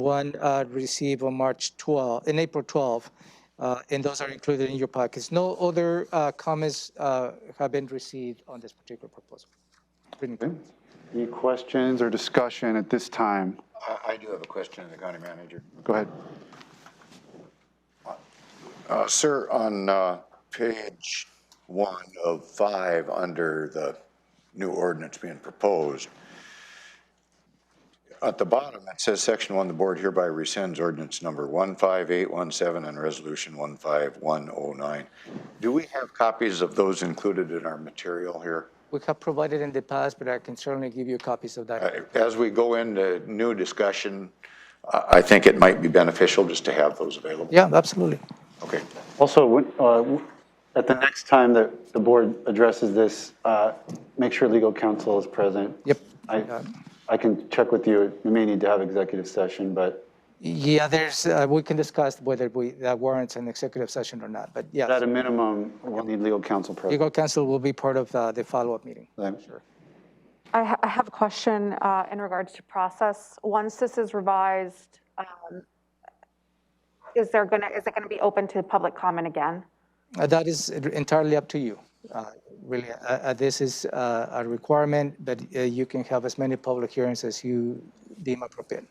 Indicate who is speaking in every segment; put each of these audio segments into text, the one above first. Speaker 1: one uh, received on March 12, in April 12, uh, and those are included in your packets. No other uh, comments uh, have been received on this particular proposal. Written
Speaker 2: Okay. Any questions or discussion at this time?
Speaker 3: I, I do have a question to the county manager.
Speaker 2: Go ahead.
Speaker 3: Uh, sir, on, uh, page one of five, under the new ordinance being proposed, at the bottom, it says, section one, the board hereby rescinds ordinance number one five eight one seven and resolution one five one oh nine. Do we have copies of those included in our material here?
Speaker 1: We have provided in the past, but I can certainly give you copies of that.
Speaker 3: Uh, As we go into new discussion, I, I think it might be beneficial just to have those available.
Speaker 1: Yeah, absolutely.
Speaker 3: Okay.
Speaker 2: Also, when- uh, w- at the next time that the board addresses this, uh, make sure legal counsel is present.
Speaker 1: Yep.
Speaker 2: I, I can check with you. We may need to have executive session, but
Speaker 1: Yeah, there's, uh, we can discuss whether we, that warrants an executive session or not, but
Speaker 2: at
Speaker 1: yeah.
Speaker 2: a minimum, we'll need legal counsel present.
Speaker 1: Legal counsel will be part of uh, the follow-up meeting.
Speaker 2: Sure.
Speaker 4: I ha- I have a question uh, in regards to process. Once this is revised, um, is there gonna, is it gonna be open to public comment again?
Speaker 1: Uh, That is entirely up to you. Uh, Really, uh, uh, this is uh, a requirement, but uh, you can have as many public hearings as you deem appropriate.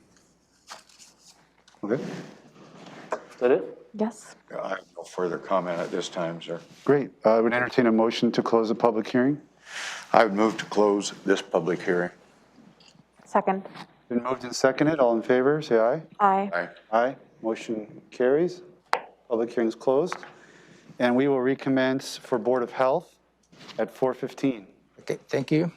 Speaker 2: Okay. Is that it?
Speaker 4: Yes.
Speaker 3: I have no further comment at this time, sir.
Speaker 2: Great. Uh, I would entertain a motion to close the public hearing.
Speaker 3: I would move to close this public hearing.
Speaker 4: Second.
Speaker 2: Been moved and seconded. All in favor, say aye.
Speaker 4: Aye.
Speaker 3: Aye.
Speaker 2: Aye. Motion carries. Public hearing's closed. And we will recommence for Board of Health at 4:15.
Speaker 1: Okay, thank you.